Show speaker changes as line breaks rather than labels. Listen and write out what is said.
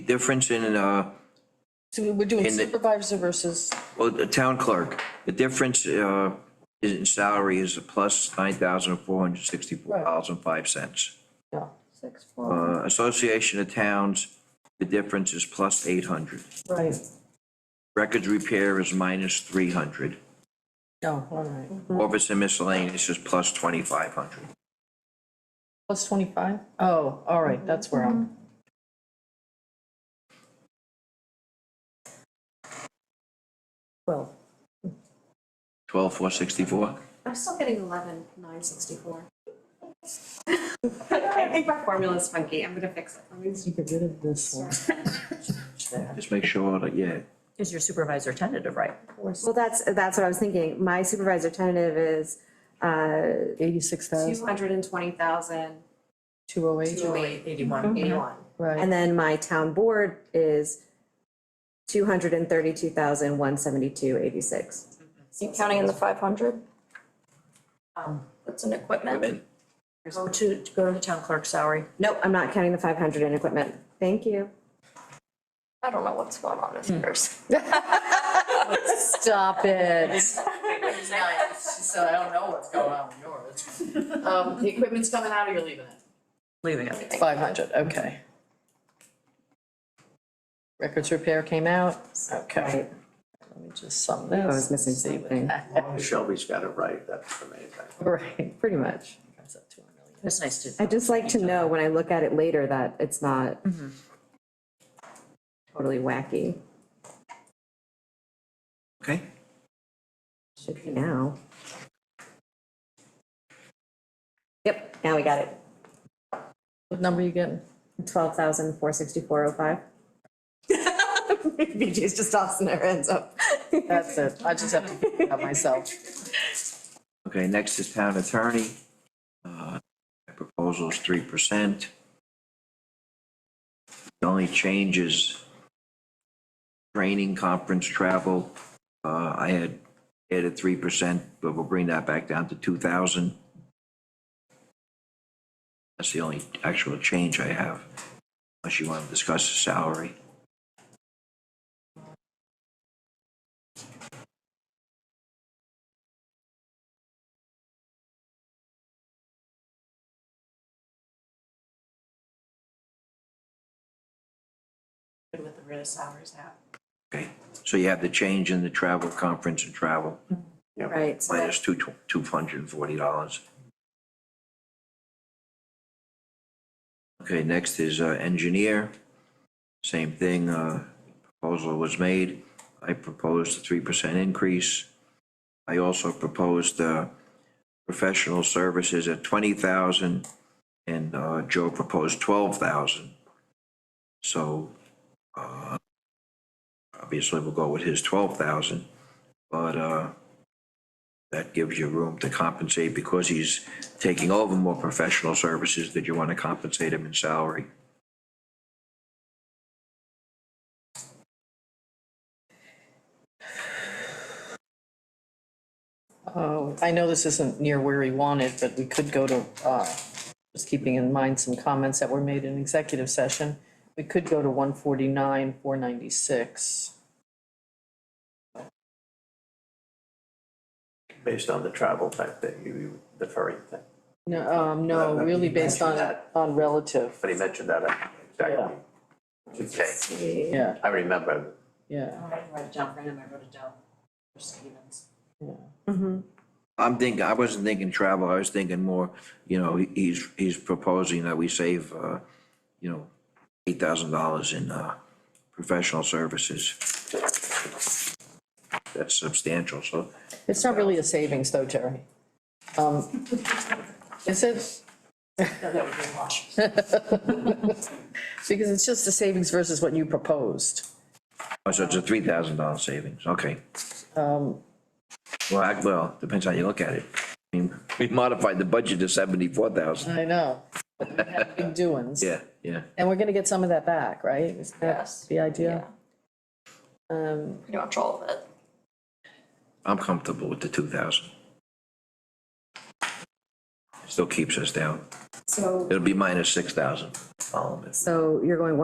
difference in, uh,
So we're doing
In the-
supervisor versus,
well, the town clerk, the difference, uh, in salary is a plus nine thousand four hundred sixty-four dollars and five cents.
yeah,
Six, four,
Uh, Association of Towns, the difference is plus eight hundred.
right,
Records repair is minus three hundred.
no, all right.
Office and miscellaneous is plus twenty-five hundred.
Plus twenty-five? Mm-hmm. Oh, all right, that's where I'm. Well,
Twelve four sixty-four?
I'm still getting eleven, nine sixty-four. I think my formula's funky, I'm gonna fix it. Let me-
you get rid of this one.
Just make sure that, yeah.
Is your supervisor tentative, right?
Well, that's, that's what I was thinking. My supervisor tentative is, uh,
Eighty-six thousand,
Two hundred and twenty thousand,
two oh eight,
two eight,
Eighty-one.
eighty-one.
right.
Mm-hmm. and then my town board is two hundred and thirty-two thousand, one seventy-two, eighty-six.
You counting in the five hundred? That's an equipment.
Women.
Go to, to go to the town clerk's salary.
Nope, I'm not counting the five hundred in equipment. Thank you.
I don't know what's going on with yours.
Stop it.
So I don't know what's going on with yours. Um, the equipment's coming out or you're leaving it?
Leaving it.
Five hundred, okay. Records repair came out, okay. Let me just sum this.
Oh, I was missing
see what
something.
that-
Shelby's got it right, that's amazing.
Right, pretty much. Comes up to a million.
It's nice to.
I'd just like to know when I look at it later that it's not
Mm-hmm.
totally wacky.
Okay.
Should be now. Yep, now we got it.
What number you getting?
Twelve thousand, four sixty-four, oh five. BJ's just tossing their hands up.
That's it, I just have to figure it out myself.
Okay, next is town attorney. Uh, my Proposal is three percent. The only change is training, conference, travel. Uh, I had added three percent, but we'll bring that back down to two thousand. That's the only actual change I have, unless you want to discuss the salary.
Good with the real hours out.
Okay, so you have the change in the travel, conference and travel,
Right, so
minus two, two hundred and forty dollars. Okay, next is uh, engineer. Same thing, uh, proposal was made. I proposed a three percent increase. I also proposed uh, professional services at twenty thousand, and uh, Joe proposed twelve thousand. So uh, obviously, we'll go with his twelve thousand, but uh, that gives you room to compensate because he's taking over more professional services. Did you want to compensate him in salary?
Oh, I know this isn't near where he wanted, but we could go to, uh, just keeping in mind some comments that were made in executive session. We could go to one forty-nine, four ninety-six.
Based on the travel type that you- you, the furry thing.
No, um, no,
Well,
really
you
based on,
mentioned that.
on relative,
But he mentioned that, uh, exactly. Okay,
yeah,
I remember.
yeah,
I didn't write it down for him, I wrote it down for Stevens.
yeah.
I'm thinking, I wasn't thinking travel, I was thinking more, you know, he- he's, he's proposing that we save, uh, you know, eight thousand dollars in, uh, professional services. That's substantial, so
It's not really a savings though, Terry. Um, is it? Because it's just the savings versus what you proposed.
Oh, so it's a three thousand dollar savings, okay.
Um,
Well, I, well, depends how you look at it. I mean, we modified the budget to seventy-four thousand.
I know, but we had big doings.
Yeah, yeah.
And we're gonna get some of that back, right? Is that
Yes.
The idea?
Yeah.
Um,
Pretty much all of it.
I'm comfortable with the two thousand. Still keeps us down.
So
It'll be minus six thousand, all of it.
so you're going